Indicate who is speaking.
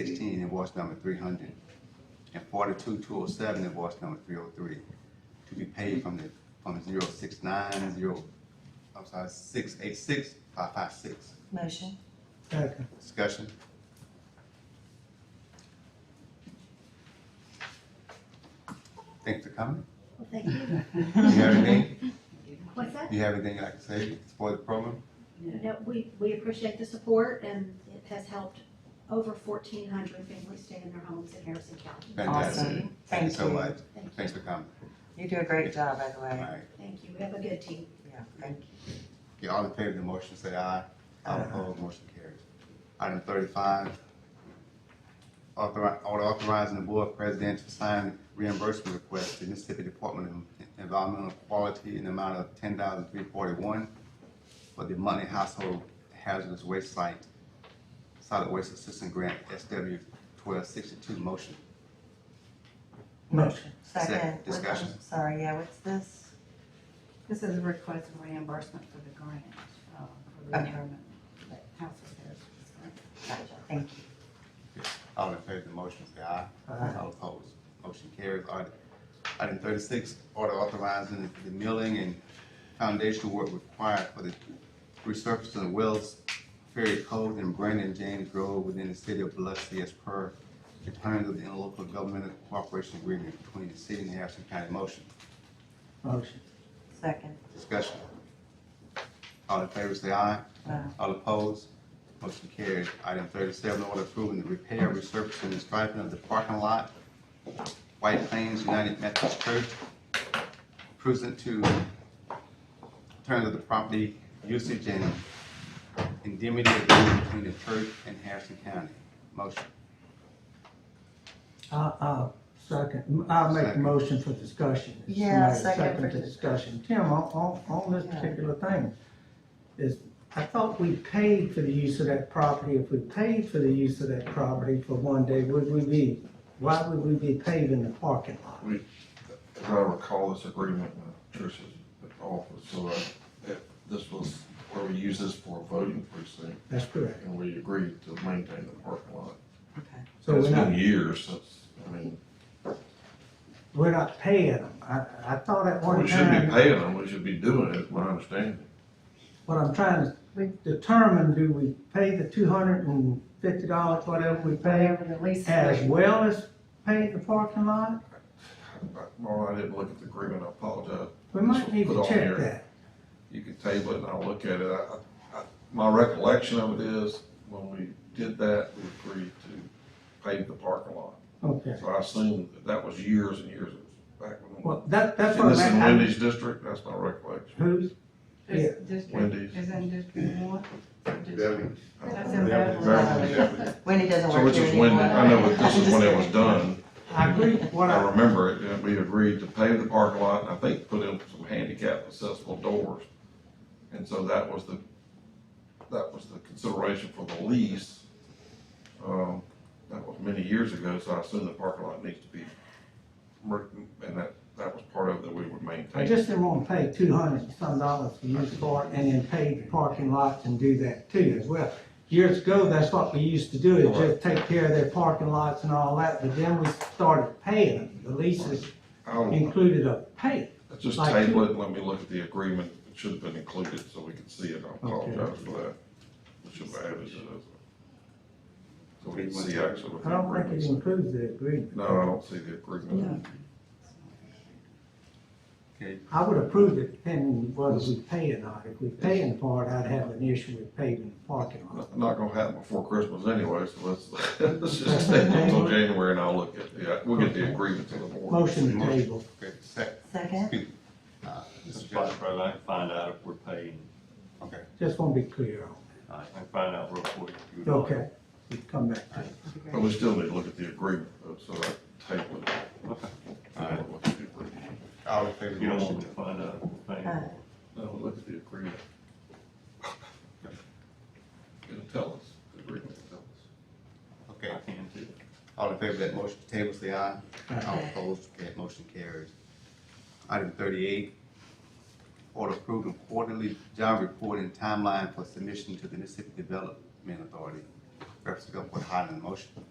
Speaker 1: sixteen, invoice number three hundred, and forty-two, two oh seven, invoice number three oh three, to be paid from the, from zero six nine, zero, I'm sorry, six eight six, five five six.
Speaker 2: Motion.
Speaker 3: Second.
Speaker 1: Discussion? Thanks for coming.
Speaker 4: Thank you.
Speaker 1: You have anything,
Speaker 4: What's that?
Speaker 1: you have anything you'd like to say for the program?
Speaker 4: No, we, we appreciate the support and it has helped over fourteen hundred families stay in their homes in Harrison County.
Speaker 1: Fantastic.
Speaker 2: Awesome.
Speaker 1: Thank you so
Speaker 2: Thank you.
Speaker 1: much.
Speaker 4: Thank you.
Speaker 1: Thanks for coming.
Speaker 2: You do a great job, by the
Speaker 1: All
Speaker 2: way.
Speaker 1: right.
Speaker 4: Thank you. We have a good team.
Speaker 2: Yeah, thank you.
Speaker 1: Okay, all in favor of the motion, say aye. All
Speaker 2: Aye.
Speaker 1: opposed, motion carries. Item thirty-five, authori- order authorizing the board president to sign reimbursement request to Mississippi Department of Environmental Quality in the amount of ten thousand three forty-one for the Money Household Hazardous Waste Site Solid Waste Assistance Grant SW twelve sixty-two motion.
Speaker 3: Motion.
Speaker 1: Second.
Speaker 2: Second. what's-
Speaker 1: Discussion.
Speaker 2: Sorry, yeah, what's this?
Speaker 5: This is a request for reimbursement for the grant, uh, for the
Speaker 2: Okay.
Speaker 5: retirement, that house is there.
Speaker 2: Gotcha, thank you.
Speaker 1: All in favor of the motion, say aye.
Speaker 3: Aye.
Speaker 1: All opposed, motion carries. Item- Item thirty-six, order authorizing the milling and foundational work required for the resurfacing of Wells Ferry Cove and Brandon James Road within the city of Biloxi as per the terms of the interlocal governmental cooperation agreement between the city and Harrison County. Motion,
Speaker 3: Motion.
Speaker 2: Second.
Speaker 1: discussion. All in favor, say aye.
Speaker 2: Aye.
Speaker 1: All opposed? Motion carries. Item thirty-seven, order approving the repair, resurfacing, and striping of the parking lot, White Plains United Methodist Church, pursuant to terms of the property usage and indemnity agreement between the church and Harrison County. Motion,
Speaker 3: I'll, I'll second, I'll make a
Speaker 1: Second.
Speaker 3: motion for discussion. If
Speaker 2: Yeah,
Speaker 3: somebody
Speaker 2: second for
Speaker 3: to discussion. Tim, on, on, on this
Speaker 2: Yeah.
Speaker 3: particular thing, is, I thought we paid for the use of that property. If we paid for the use of that property for one day, would we be, why would we be paving the parking lot?
Speaker 6: As I recall, this agreement uh, with Trish's office, so uh, it- this was where we used this for a voting precinct,
Speaker 3: That's correct.
Speaker 6: and we agreed to maintain the parking lot.
Speaker 2: Okay.
Speaker 3: So
Speaker 6: It's
Speaker 3: we're
Speaker 6: been
Speaker 3: not,
Speaker 6: years since, I mean,
Speaker 3: we're not paying them. I, I thought at one
Speaker 6: we shouldn't be
Speaker 3: time,
Speaker 6: paying them, we should be doing it, is my understanding.
Speaker 3: what I'm trying to determine, do we pay the two hundred and fifty dollars, whatever we pay?
Speaker 5: Whatever the lease
Speaker 3: As
Speaker 5: rate,
Speaker 3: well as pay the parking lot?
Speaker 6: But, Well, I didn't look at the agreement, I apologize.
Speaker 3: We might need to
Speaker 6: Put on
Speaker 3: check
Speaker 6: there.
Speaker 3: that.
Speaker 6: You can table it and I'll look at it. I, I, my recollection of it is, when we did that, we agreed to pave the parking lot.
Speaker 3: Okay.
Speaker 6: So I assume that that was years and years back when.
Speaker 3: Well, that, that's
Speaker 6: And
Speaker 3: what
Speaker 6: this is
Speaker 3: I'm
Speaker 6: in
Speaker 3: asking.
Speaker 6: Wendy's district, that's my recollection.
Speaker 3: Who's?
Speaker 7: It's district,
Speaker 6: Wendy's.
Speaker 7: is in district one. That's in
Speaker 6: Beverly,
Speaker 7: Beverly.
Speaker 6: Beverly.
Speaker 2: Wendy doesn't
Speaker 6: So
Speaker 2: work
Speaker 6: which
Speaker 2: here
Speaker 6: is
Speaker 2: anymore.
Speaker 6: when, I know, but this is when it was done.
Speaker 3: I agree, what
Speaker 6: I
Speaker 3: I,
Speaker 6: remember it, and we agreed to pave the parking lot, and I think put in some handicap accessible doors. And so that was the, that was the consideration for the lease. Um, that was many years ago, so I assume the parking lot needs to be, re- and that, that was part of that we would
Speaker 3: I
Speaker 6: maintain.
Speaker 3: just didn't want to pay two hundred and some dollars to use for it and then pay the parking lot and do that too as well. Years ago, that's what we used to do, is just take care of their parking lots and all that, but then we started paying them. The leases
Speaker 6: I'll-
Speaker 3: included a pay.
Speaker 6: Let's just
Speaker 3: Like-
Speaker 6: table it, and let me look at the agreement, it should have been included, so we can see it, I apologize for that. We should have added it as a. So we can see actually what
Speaker 3: I
Speaker 6: the
Speaker 3: don't think
Speaker 6: agreement
Speaker 3: it
Speaker 6: said.
Speaker 3: includes the agreement.
Speaker 6: No, I don't see the agreement.
Speaker 1: okay,
Speaker 3: I would approve it depending whether we pay or not. If we pay in part, I'd have an issue with paving the parking lot.
Speaker 6: Not- Not gonna happen before Christmas anyway, so let's, let's just stay until January, and I'll look at, yeah, we'll get the agreement to the board.
Speaker 3: Motion to table.
Speaker 1: okay, second.
Speaker 2: Second,
Speaker 1: Uh,
Speaker 8: Mr.
Speaker 1: Mr.
Speaker 8: Vice
Speaker 1: Johnson,
Speaker 8: President, I can find out if we're paying,
Speaker 1: okay,
Speaker 3: Just want to be clear on
Speaker 8: I can find out real quick. if you
Speaker 3: it.
Speaker 8: would like.
Speaker 3: Okay, we come back to it.
Speaker 6: But we still need to look at the agreement, though, so I table it.
Speaker 1: Alright.
Speaker 6: Look at the agreement.
Speaker 1: all in favor of
Speaker 8: If
Speaker 1: the
Speaker 8: you don't want
Speaker 1: motion?
Speaker 8: me to find out if we're paying.
Speaker 2: Uh,
Speaker 6: No, look at the agreement. It'll tell us, the agreement will tell us.
Speaker 1: Okay,
Speaker 8: I can too.
Speaker 1: All in favor of that motion, to table, say aye.
Speaker 3: Aye.
Speaker 1: All opposed, that motion carries. Item thirty-eight, order approving quarterly job reporting timeline for submission to the Mississippi Development Authority. Representative Gulfport Highland, motion.